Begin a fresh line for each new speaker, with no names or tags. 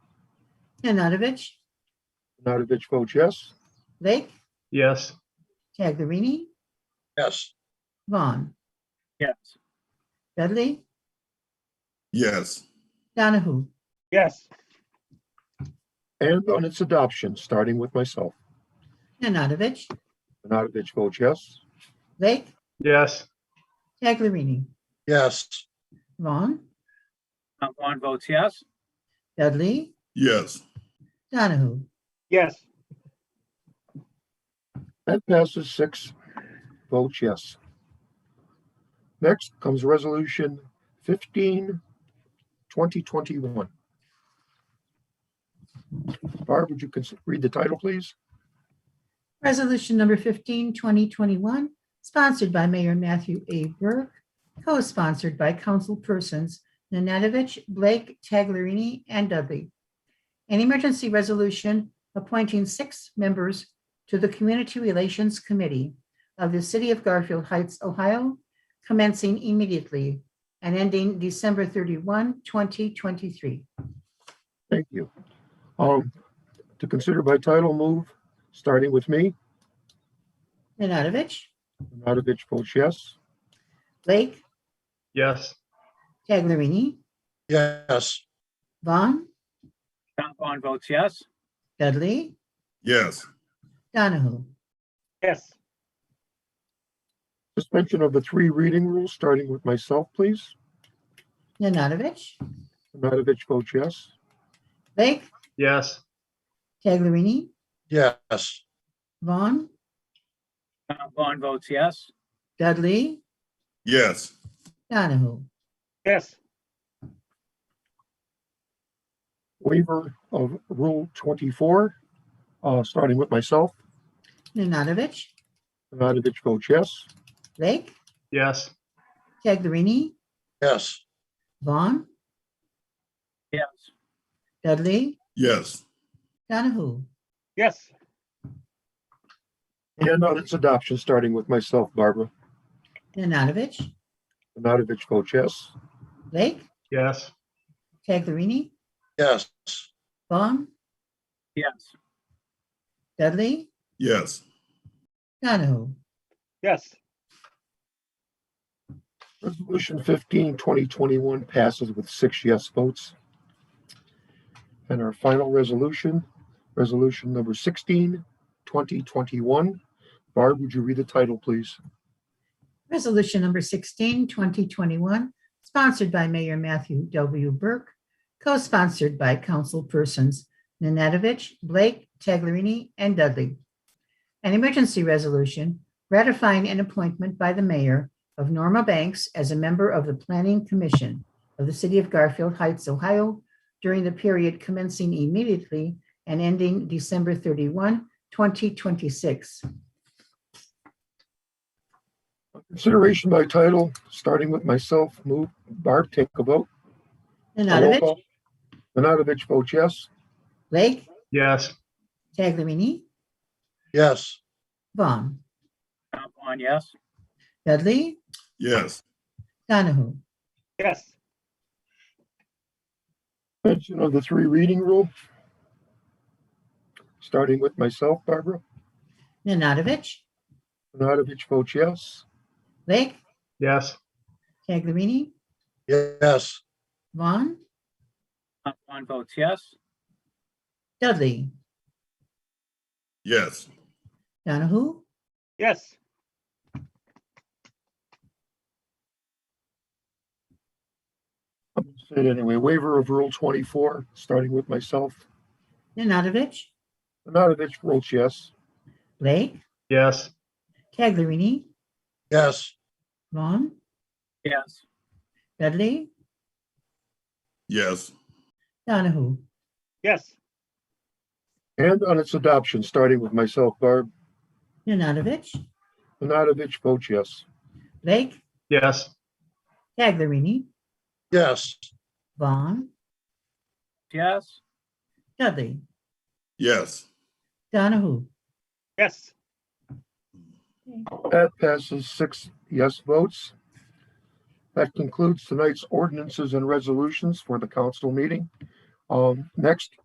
Nanadovich,
Nanadovich votes yes.
Lake,
Yes.
Taglerini,
Yes.
Vaughn,
Yes.
Dudley,
yes,
Donahue.
Yes.
And on its adoption, starting with myself.
Nanadovich,
Nanadovich votes yes.
Lake,
Yes.
Taglerini,
Yes.
Vaughn,
Tom Vaughn votes yes.
Dudley,
yes,
Donahue.
Yes.
That passes six votes yes. Next comes Resolution 15, 2021. Barb, would you cons- read the title, please?
Resolution number 15, 2021, sponsored by Mayor Matthew A. Burke, co-sponsored by councilpersons Nanadovich, Blake, Taglerini, and Dudley. An emergency resolution appointing six members to the Community Relations Committee of the City of Garfield Heights, Ohio, commencing immediately and ending December 31, 2023.
Thank you. Um, To consider by title move, starting with me,
Nanadovich,
Nanadovich votes yes.
Blake,
Yes.
Taglerini,
Yes.
Vaughn,
Tom Vaughn votes yes.
Dudley,
yes,
Donahue.
Yes.
Suspension of the three reading rule, starting with myself, please.
Nanadovich,
Nanadovich votes yes.
Blake,
Yes.
Taglerini,
Yes.
Vaughn,
Tom Vaughn votes yes.
Dudley,
yes,
Donahue.
Yes.
Waiver of Rule 24, uh, starting with myself.
Nanadovich,
Nanadovich votes yes.
Blake,
Yes.
Taglerini,
Yes.
Vaughn,
Yes.
Dudley,
yes,
Donahue.
Yes.
And on its adoption, starting with myself, Barbara.
Nanadovich,
Nanadovich votes yes.
Blake,
Yes.
Taglerini,
Yes.
Vaughn,
Yes.
Dudley,
yes,
Donahue.
Yes.
Resolution 15, 2021 passes with six yes votes. And our final resolution, resolution number 16, 2021. Barb, would you read the title, please?
Resolution number 16, 2021, sponsored by Mayor Matthew W. Burke, co-sponsored by councilpersons Nanadovich, Blake, Taglerini, and Dudley. An emergency resolution ratifying an appointment by the mayor of Norma Banks as a member of the Planning Commission of the City of Garfield Heights, Ohio, during the period commencing immediately and ending December 31, 2026.
Consideration by title, starting with myself, move. Barb, take a vote. Roll
Nanadovich,
call. Nanadovich votes yes.
Blake,
Yes.
Taglerini,
Yes.
Vaughn.
Tom Vaughn, yes.
Dudley,
yes,
Donahue,
Yes.
Mention of the three reading rule. Starting with myself, Barbara.
Nanadovich,
Nanadovich votes yes.
Lake,
Yes.
Taglerini,
Yes.
Vaughn,
Tom Vaughn votes yes.
Dudley,
yes.
Donahue,
Yes.
I'm gonna say it anyway. Waiver of Rule 24, starting with myself.
Nanadovich,
Nanadovich votes yes.
Blake,
Yes.
Taglerini,
Yes.
Vaughn,
Yes.
Dudley,
Yes,
Donahue,
Yes.
And on its adoption, starting with myself, Barb.
Nanadovich,
Nanadovich votes yes.
Blake,
Yes.
Taglerini,
Yes.
Vaughn,
Yes.
Dudley,
yes.
Donahue.
Yes.
That passes six yes votes. That concludes tonight's ordinances and resolutions for the council meeting. Um, Next